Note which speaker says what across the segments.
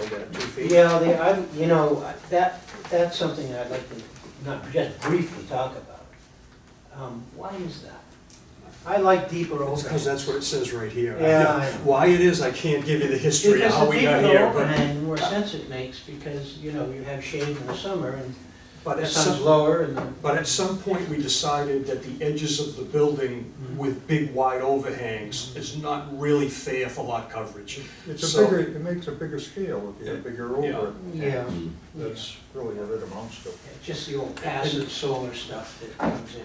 Speaker 1: that, two feet?
Speaker 2: Yeah, the, I, you know, that, that's something I'd like to, not just briefly talk about. Um, why is that? I like deeper
Speaker 1: Well, it's because
Speaker 2: overhang.
Speaker 1: that's what it says right here.
Speaker 2: Yeah, I know.
Speaker 1: Why it is, I can't give you the history of
Speaker 2: Because
Speaker 1: how
Speaker 2: the
Speaker 1: we got
Speaker 2: deeper
Speaker 1: here, but,
Speaker 2: overhang, the more sense it makes, because, you know, you have shade in the summer, and
Speaker 1: but
Speaker 2: the
Speaker 1: at
Speaker 2: sun's
Speaker 1: some,
Speaker 2: lower, and the
Speaker 1: but at some point, we decided that the edges of the building
Speaker 2: Mhm.
Speaker 1: with big wide overhangs is not really fair for lot coverage.
Speaker 3: It's a
Speaker 1: So-
Speaker 3: bigger, it makes a bigger scale if you have bigger
Speaker 1: Yeah.
Speaker 3: over.
Speaker 2: Yeah.
Speaker 1: Mm-hmm.
Speaker 3: That's really what it amounts to.
Speaker 2: Just the old passive solar stuff that comes in.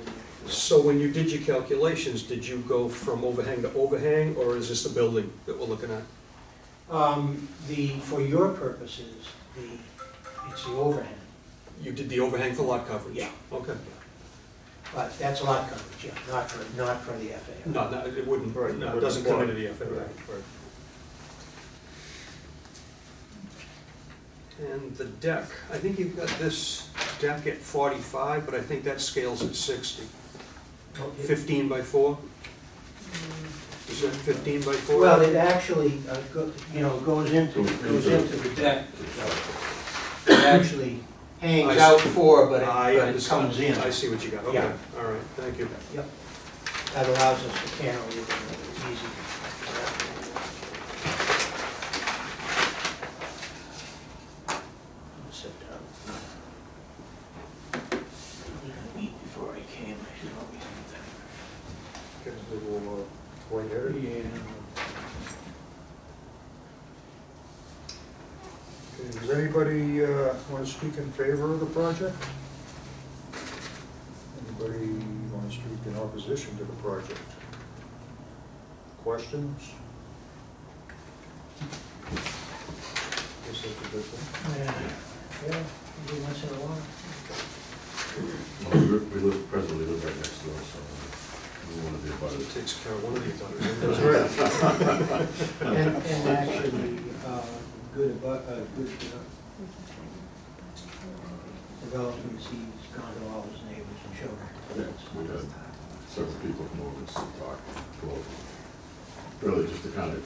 Speaker 1: So when you did your calculations, did you go from overhang to overhang, or is this the building that we're looking at?
Speaker 2: Um, the, for your purposes, the, it's the overhang,
Speaker 1: You did the overhang for lot coverage?
Speaker 2: Yeah.
Speaker 1: Okay.
Speaker 2: but that's lot coverage, yeah, not for, not for the FAR.
Speaker 1: No, no, it wouldn't,
Speaker 3: Right,
Speaker 1: no, it
Speaker 3: wouldn't
Speaker 1: doesn't come
Speaker 3: apply.
Speaker 1: into the FAR.
Speaker 3: Right.
Speaker 1: And the deck, I think you've got this deck at forty-five, but I think that scales at sixty.
Speaker 2: Okay.
Speaker 1: Fifteen by four? Is that fifteen by four?
Speaker 2: Well, it actually, uh, go- you know, goes into, goes into the deck. It actually
Speaker 1: I
Speaker 2: hangs
Speaker 1: see.
Speaker 2: out for, but it-
Speaker 1: I
Speaker 2: but it
Speaker 1: understand.
Speaker 2: comes in.
Speaker 1: I see what you got, okay,
Speaker 2: Yeah.
Speaker 1: all right, thank you.
Speaker 2: That allows us to cantilever easy. Sit down. I eat before I came, I should always do that.
Speaker 3: Gets a little uh, lightheaded. Okay, Does anybody want to speak in favor of the project? Anybody want to speak in opposition to the project? Questions? Guess that's a good thing.
Speaker 2: Yeah, yeah, every once in a while.
Speaker 4: Well, We live- we live, presently live right next door, so we want to be about
Speaker 1: It
Speaker 4: it.
Speaker 1: takes care of one of these others.
Speaker 2: That's right. And, and actually, uh, good about, uh, good, uh, developments, he's gone to all his neighbors and showed them.
Speaker 4: Yeah, we had
Speaker 2: uh,
Speaker 4: several people come over and sit, talk, go over. Really, just to kind of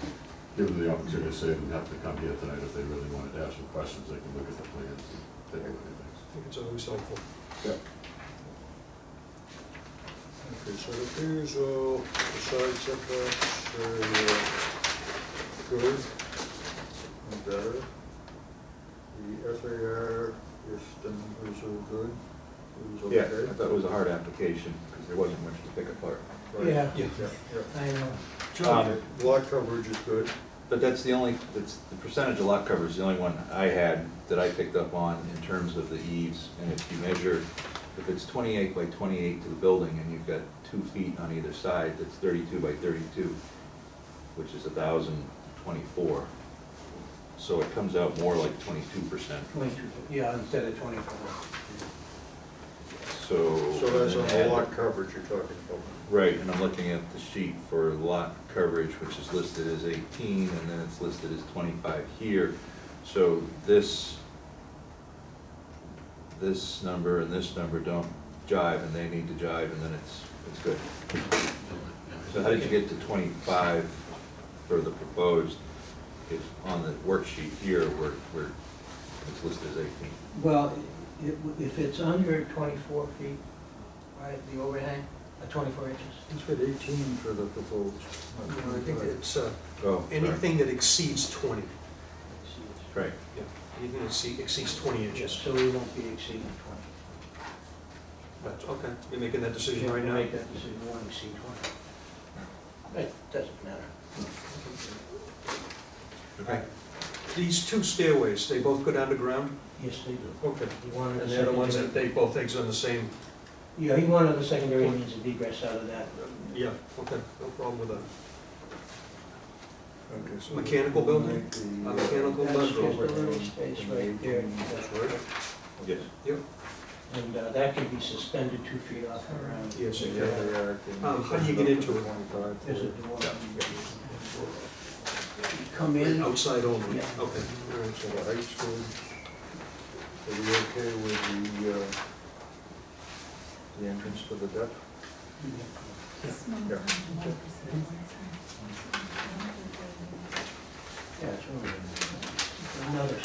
Speaker 4: give them the opportunity to say, they didn't have to come here tonight if they really wanted to have some questions, they can look at the plans and take a look at things.
Speaker 1: I think it's always helpful.
Speaker 3: Okay, so it appears, uh, the side setbacks are uh, good and better. The FAR, if the numbers are good, it was
Speaker 5: Yeah,
Speaker 3: okay.
Speaker 5: I thought it was a hard application, because there wasn't much to pick apart.
Speaker 3: Right.
Speaker 2: Yeah,
Speaker 1: Yeah.
Speaker 3: Yeah, yeah.
Speaker 2: I know.
Speaker 5: Um,
Speaker 3: Lot coverage is good.
Speaker 5: But that's the only, that's, the percentage of lot cover is the only one I had that I picked up on in terms of the eaves. And if you measure, if it's twenty-eight by twenty-eight to the building, and you've got two feet on either side, that's thirty-two by thirty-two, which is thousand twenty-four. So it comes out more like twenty-two percent,
Speaker 2: Twenty-two, yeah, instead of twenty-four.
Speaker 5: so.
Speaker 3: So that's on
Speaker 5: and
Speaker 3: the
Speaker 5: then
Speaker 3: lot
Speaker 5: add-
Speaker 3: coverage you're talking about.
Speaker 5: Right, and I'm looking at the sheet for lot coverage, which is listed as 18, and then it's listed as 25 here. So this, this number and this number don't jive, and they need to jive, and then it's, it's good. So how did you get to 25 for the proposed, if on the worksheet here, where, where it's listed as 18?
Speaker 2: Well, it- if it's under twenty-four feet, right, the overhang, uh, twenty-four inches.
Speaker 3: It's got eighteen for the proposed.
Speaker 1: No, I think it's, uh,
Speaker 5: Oh, sorry.
Speaker 1: anything that exceeds twenty,
Speaker 5: Right.
Speaker 1: anything that exceed- exceeds twenty inches.
Speaker 2: So we won't be exceeding twenty.
Speaker 1: That's, okay, you're making that decision
Speaker 2: Yeah,
Speaker 1: right now?
Speaker 2: Make that decision, one exceed twenty. It doesn't matter.
Speaker 5: Okay.
Speaker 1: These two stairways, they both go down to ground?
Speaker 2: Yes, they do.
Speaker 1: Okay.
Speaker 2: You wanted a
Speaker 1: And they're the ones that
Speaker 2: secondary.
Speaker 1: they both exit on the same,
Speaker 2: Yeah, he wanted the secondary means of egress out of that.
Speaker 1: yeah, okay, no problem with that.
Speaker 3: Okay, so
Speaker 1: Mechanical building?
Speaker 3: eliminate the,
Speaker 1: A
Speaker 3: uh,
Speaker 1: mechanical
Speaker 2: That's just a
Speaker 1: building?
Speaker 2: little space right there.
Speaker 3: That's
Speaker 1: right.
Speaker 5: Yes.
Speaker 2: And uh, that could be suspended two feet off the ground.
Speaker 1: Yes,
Speaker 3: Yeah, they are.
Speaker 1: Um, how do you get into it?
Speaker 3: Twenty-five.
Speaker 2: There's a door. You Come in,
Speaker 1: Outside only, okay,
Speaker 2: Yeah.
Speaker 1: all right.
Speaker 3: So the height's good. Are we okay with the, uh, the entrance to the deck? Yeah.
Speaker 2: yeah, it's over. Another